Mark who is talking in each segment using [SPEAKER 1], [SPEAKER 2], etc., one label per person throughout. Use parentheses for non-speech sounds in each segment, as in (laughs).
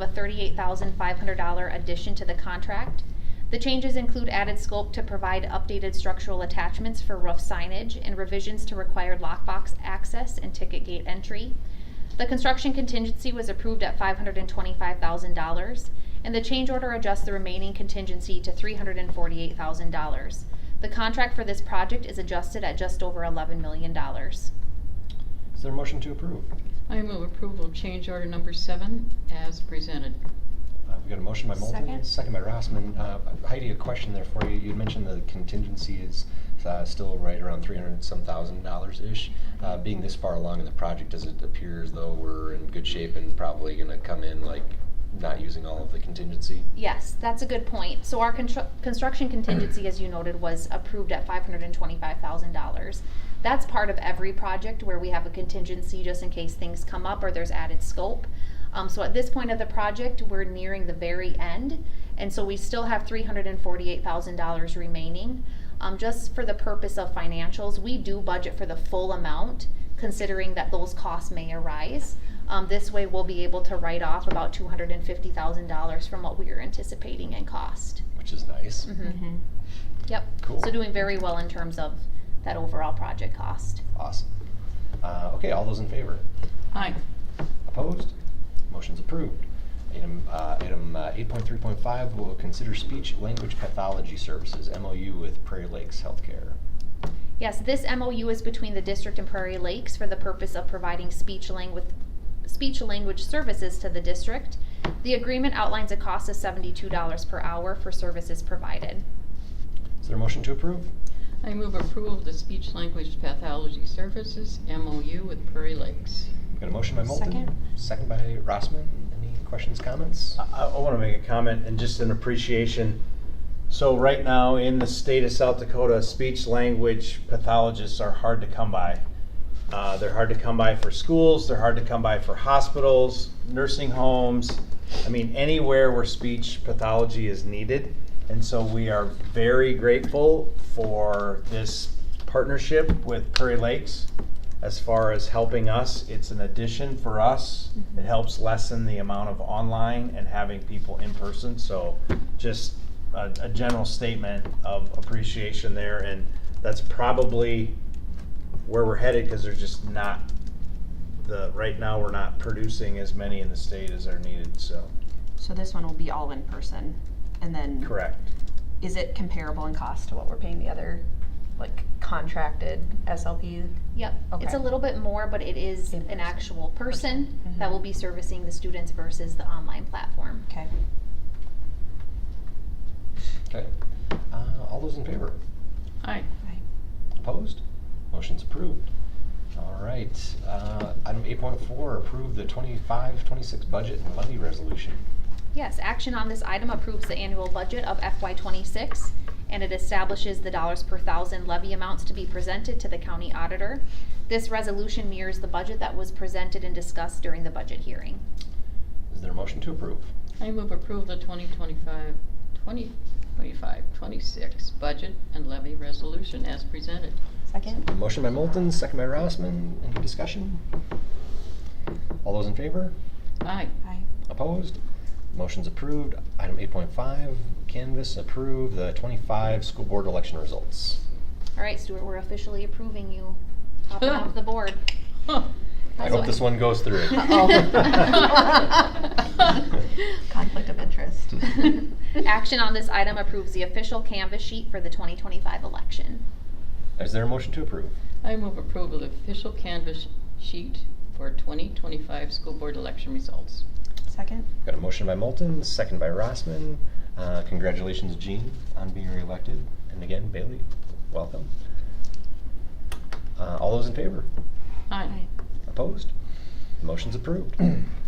[SPEAKER 1] a thirty-eight thousand five hundred dollar addition to the contract. The changes include added scope to provide updated structural attachments for roof signage and revisions to required lockbox access and ticket gate entry. The construction contingency was approved at five hundred and twenty-five thousand dollars, and the change order adjusts the remaining contingency to three hundred and forty-eight thousand dollars. The contract for this project is adjusted at just over eleven million dollars.
[SPEAKER 2] Is there a motion to approve?
[SPEAKER 3] I move approval of change order number seven as presented.
[SPEAKER 2] Uh, we got a motion by Moulton,
[SPEAKER 4] Second.
[SPEAKER 2] by Rossman. Uh, Heidi, a question there for you. You had mentioned the contingency is uh, still right around three hundred and some thousand dollars ish. Uh, being this far along in the project, does it appear as though we're in good shape and probably going to come in like not using all of the contingency?
[SPEAKER 1] Yes, that's a good point. So our constru- construction contingency, as you noted, was approved at five hundred and twenty-five thousand dollars. That's part of every project where we have a contingency just in case things come up or there's added scope. Um, so at this point of the project, we're nearing the very end, and so we still have three hundred and forty-eight thousand dollars remaining. Um, just for the purpose of financials, we do budget for the full amount, considering that those costs may arise. Um, this way, we'll be able to write off about two hundred and fifty thousand dollars from what we are anticipating in cost.
[SPEAKER 2] Which is nice.
[SPEAKER 4] Mm-hmm.
[SPEAKER 1] Mhm.
[SPEAKER 3] Mm-hmm.
[SPEAKER 1] Yep.
[SPEAKER 2] Cool.
[SPEAKER 1] So doing very well in terms of that overall project cost.
[SPEAKER 2] Awesome. Uh, okay, all those in favor?
[SPEAKER 3] Aye.
[SPEAKER 2] Opposed? Motion's approved. Item, uh, item eight point three point five will consider speech language pathology services MOU with Prairie Lakes Healthcare.
[SPEAKER 1] Yes, this MOU is between the district and Prairie Lakes for the purpose of providing speech language, speech language services to the district. The agreement outlines a cost of seventy-two dollars per hour for services provided.
[SPEAKER 2] Is there a motion to approve?
[SPEAKER 3] I move approval of the speech language pathology services MOU with Prairie Lakes.
[SPEAKER 2] Got a motion by Moulton?
[SPEAKER 4] Second.
[SPEAKER 2] Second by Rossman. Any questions, comments?
[SPEAKER 5] I, I want to make a comment and just an appreciation. So right now in the state of South Dakota, speech language pathologists are hard to come by. Uh, they're hard to come by for schools. They're hard to come by for hospitals, nursing homes. I mean, anywhere where speech pathology is needed. And so we are very grateful for this partnership with Prairie Lakes as far as helping us, it's an addition for us. It helps lessen the amount of online and having people in person, so just a, a general statement of appreciation there, and that's probably where we're headed, cause there's just not the, right now, we're not producing as many in the state as are needed, so.
[SPEAKER 4] So this one will be all in person, and then
[SPEAKER 5] Correct.
[SPEAKER 4] is it comparable in cost to what we're paying the other, like contracted SLP?
[SPEAKER 1] Yep, it's a
[SPEAKER 4] Okay.
[SPEAKER 1] little bit more, but it is
[SPEAKER 4] In
[SPEAKER 1] an
[SPEAKER 4] person.
[SPEAKER 1] actual person
[SPEAKER 4] Person.
[SPEAKER 1] that
[SPEAKER 4] Mhm.
[SPEAKER 1] will be servicing the students versus the online platform.
[SPEAKER 4] Okay.
[SPEAKER 2] Okay. Uh, all those in favor?
[SPEAKER 3] Aye.
[SPEAKER 2] Opposed? Motion's approved. All right. Uh, item eight point four, approve the 25-26 budget and levy resolution.
[SPEAKER 1] Yes, action on this item approves the annual budget of FY twenty-six, and it establishes the dollars per thousand levy amounts to be presented to the county auditor. This resolution mirrors the budget that was presented and discussed during the budget hearing.
[SPEAKER 2] Is there a motion to approve?
[SPEAKER 3] I move approval of the 2025, 2025, 26 budget and levy resolution as presented.
[SPEAKER 4] Second?
[SPEAKER 2] A motion by Moulton, second by Rossman. Any discussion? All those in favor?
[SPEAKER 3] (laughs) Aye.
[SPEAKER 4] Aye.
[SPEAKER 2] Opposed? Motion's approved. Item eight point five, canvas approve the twenty-five school board election results.
[SPEAKER 1] All right, Stuart, we're officially approving you, topping off the board.
[SPEAKER 3] Huh.
[SPEAKER 1] That's
[SPEAKER 2] I hope
[SPEAKER 1] what- (laughs)
[SPEAKER 2] this one goes through.
[SPEAKER 3] Oh.
[SPEAKER 4] Uh-oh. Conflict
[SPEAKER 1] (laughs)
[SPEAKER 4] of interest. (laughs)
[SPEAKER 1] Action on this item approves the official canvas sheet for the twenty twenty-five election.
[SPEAKER 2] (laughs) Is there a motion to approve?
[SPEAKER 3] I move approval of official canvas sheet for 2025 school board election results.
[SPEAKER 4] Second?
[SPEAKER 2] Got a motion by Moulton, second by Rossman. Uh, Congratulations, Gene, on being reelected. And again, Bailey, welcome. Uh, All those in favor?
[SPEAKER 3] Aye.
[SPEAKER 2] Opposed? Motion's approved.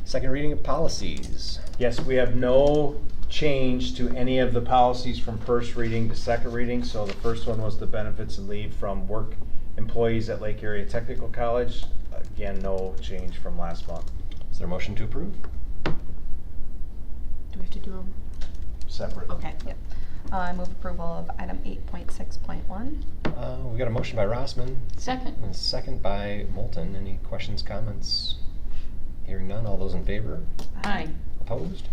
[SPEAKER 2] Second reading of policies.
[SPEAKER 5] Yes, we have no change to any of the policies from first reading to second reading. So the first one was the benefits and leave from work employees at Lake Area Technical College. Again, no change from last month,
[SPEAKER 2] Is there a motion to approve?
[SPEAKER 4] Do we have to do them?
[SPEAKER 5] separate.
[SPEAKER 4] Okay, yep. Uh, I move approval of item eight point six point one.
[SPEAKER 2] Uh, We got a motion by Rossman
[SPEAKER 3] Second.
[SPEAKER 2] and a second by Moulton. Any questions, comments? Hearing none, all those in favor?
[SPEAKER 3] Aye.
[SPEAKER 2] Opposed?